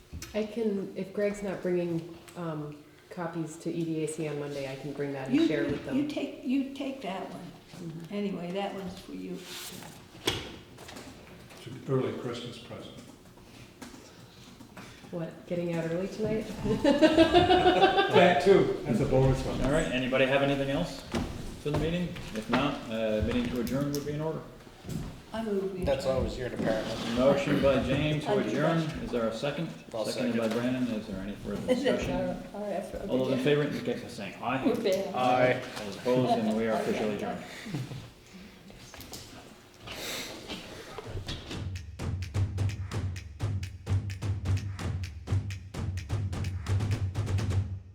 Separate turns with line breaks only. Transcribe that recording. I can, if Greg's not bringing, um, copies to E EDAC on Monday, I can bring that
You-
and share with
You
them.
take, you take that one. Anyway, that one's for you.
It's an early Christmas present.
What, getting out early tonight?
That too, that's a bonus one.
All right, anybody have anything else for the meeting? If not, uh, meeting to adjourn would be in order.
I move we.
That's always your department.
Motion by James to
I'll do
adjourn, is there a second?
I'll
Seconded by Brandon, is there any further discussion? All those in favor, indicate by saying aye.
We're bad.
All those opposed, and we are officially adjourned.